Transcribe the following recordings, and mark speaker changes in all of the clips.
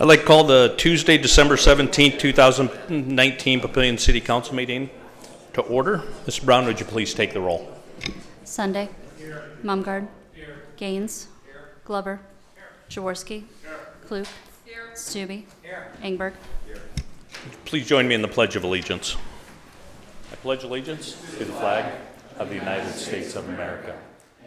Speaker 1: I'd like to call the Tuesday, December 17, 2019 Papillion City Council meeting to order. Mr. Brown, would you please take the roll?
Speaker 2: Sunday. Mumgarde. Gaines. Glover. Jaworski. Klug. Stube. Ingberg.
Speaker 1: Please join me in the Pledge of Allegiance. I pledge allegiance to the flag of the United States of America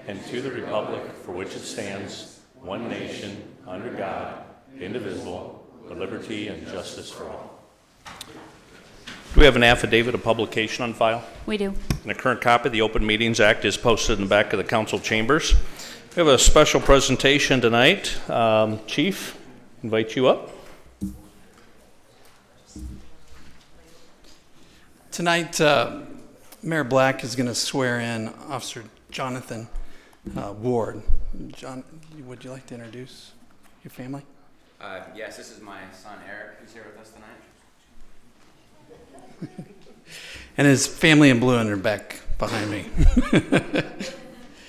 Speaker 1: and to the republic for which it stands, one nation, under God, indivisible, with liberty and justice for all. Do we have an affidavit of publication on file?
Speaker 2: We do.
Speaker 1: And a current copy of the Open Meetings Act is posted in the back of the council chambers. We have a special presentation tonight. Um, Chief, invite you up.
Speaker 3: Tonight, uh, Mayor Black is going to swear in Officer Jonathan uh, Ward. John, would you like to introduce your family?
Speaker 4: Uh, yes, this is my son Eric, who's here with us tonight.
Speaker 3: And his family in blue and they're back behind me.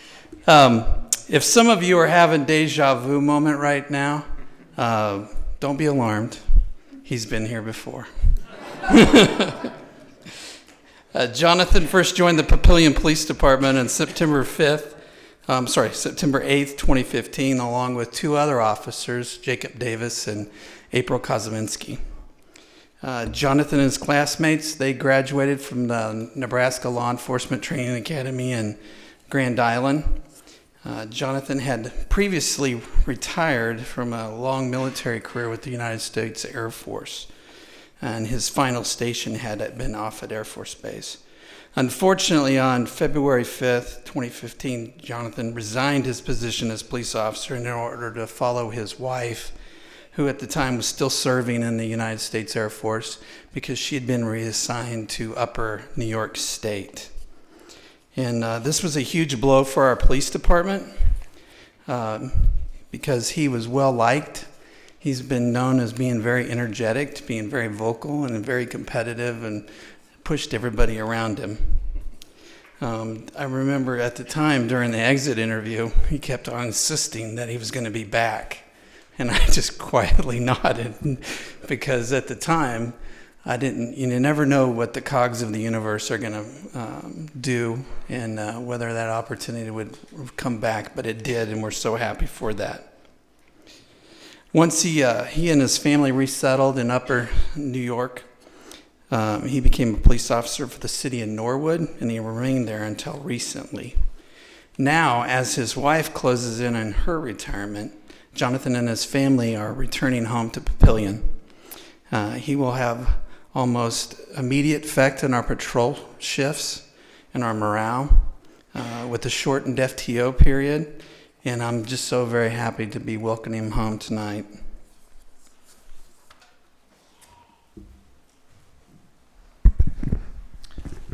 Speaker 3: um, if some of you are having deja vu moment right now, uh, don't be alarmed. He's been here before. Uh, Jonathan first joined the Papillion Police Department on September 5th, um, sorry, September 8th, 2015, along with two other officers, Jacob Davis and April Kozeminski. Uh, Jonathan and his classmates, they graduated from the Nebraska Law Enforcement Training Academy in Grand Island. Uh, Jonathan had previously retired from a long military career with the United States Air Force, and his final station had been off at Air Force Base. Unfortunately, on February 5th, 2015, Jonathan resigned his position as police officer in order to follow his wife who at the time was still serving in the United States Air Force because she had been reassigned to Upper New York State. And uh, this was a huge blow for our police department um, because he was well liked. He's been known as being very energetic, being very vocal, and very competitive, and pushed everybody around him. Um, I remember at the time during the exit interview, he kept on insisting that he was going to be back. And I just quietly nodded because at the time, I didn't, you never know what the cogs of the universe are going to um, do and uh, whether that opportunity would come back, but it did, and we're so happy for that. Once he, uh, he and his family resettled in Upper New York, um, he became a police officer for the city of Norwood, and he remained there until recently. Now, as his wife closes in on her retirement, Jonathan and his family are returning home to Papillion. Uh, he will have almost immediate effect on our patrol shifts and our morale uh, with the shortened FTO period, and I'm just so very happy to be welcoming him home tonight.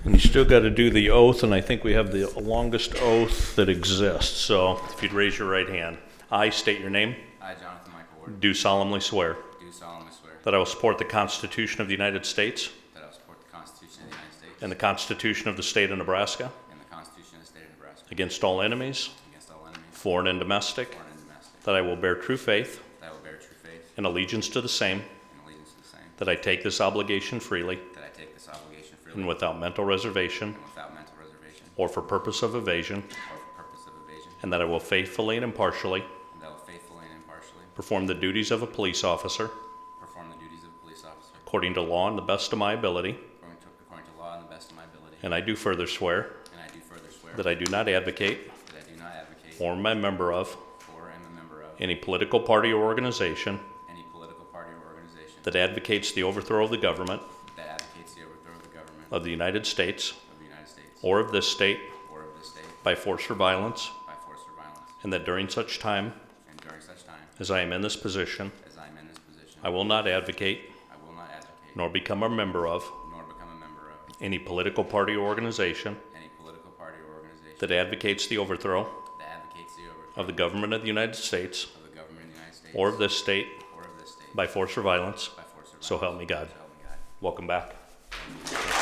Speaker 1: And you still got to do the oath, and I think we have the longest oath that exists. So if you'd raise your right hand. I state your name,
Speaker 4: I, Jonathan Michael Ward,
Speaker 1: do solemnly swear
Speaker 4: do solemnly swear
Speaker 1: that I will support the Constitution of the United States
Speaker 4: that I will support the Constitution of the United States
Speaker 1: and the Constitution of the State of Nebraska
Speaker 4: and the Constitution of the State of Nebraska
Speaker 1: against all enemies,
Speaker 4: against all enemies,
Speaker 1: foreign and domestic,
Speaker 4: foreign and domestic,
Speaker 1: that I will bear true faith
Speaker 4: that I will bear true faith
Speaker 1: and allegiance to the same,
Speaker 4: and allegiance to the same,
Speaker 1: that I take this obligation freely
Speaker 4: that I take this obligation freely
Speaker 1: and without mental reservation
Speaker 4: and without mental reservation
Speaker 1: or for purpose of evasion,
Speaker 4: or for purpose of evasion,
Speaker 1: and that I will faithfully and impartially
Speaker 4: and that I will faithfully and impartially
Speaker 1: perform the duties of a police officer
Speaker 4: perform the duties of a police officer
Speaker 1: according to law and the best of my ability.
Speaker 4: according to, according to law and the best of my ability.
Speaker 1: And I do further swear
Speaker 4: And I do further swear
Speaker 1: that I do not advocate
Speaker 4: that I do not advocate
Speaker 1: or am a member of
Speaker 4: for or am a member of
Speaker 1: any political party or organization
Speaker 4: any political party or organization
Speaker 1: that advocates the overthrow of the government
Speaker 4: that advocates the overthrow of the government
Speaker 1: of the United States
Speaker 4: of the United States
Speaker 1: or of this state
Speaker 4: or of this state
Speaker 1: by force or violence,
Speaker 4: by force or violence,
Speaker 1: and that during such time
Speaker 4: and during such time
Speaker 1: as I am in this position,
Speaker 4: as I am in this position,
Speaker 1: I will not advocate
Speaker 4: I will not advocate
Speaker 1: nor become a member of
Speaker 4: nor become a member of
Speaker 1: any political party or organization
Speaker 4: any political party or organization
Speaker 1: that advocates the overthrow
Speaker 4: that advocates the overthrow
Speaker 1: of the government of the United States
Speaker 4: of the government of the United States
Speaker 1: or of this state
Speaker 4: or of this state
Speaker 1: by force or violence.
Speaker 4: by force or violence.
Speaker 1: So help me God.
Speaker 4: So help me God.
Speaker 1: Welcome back.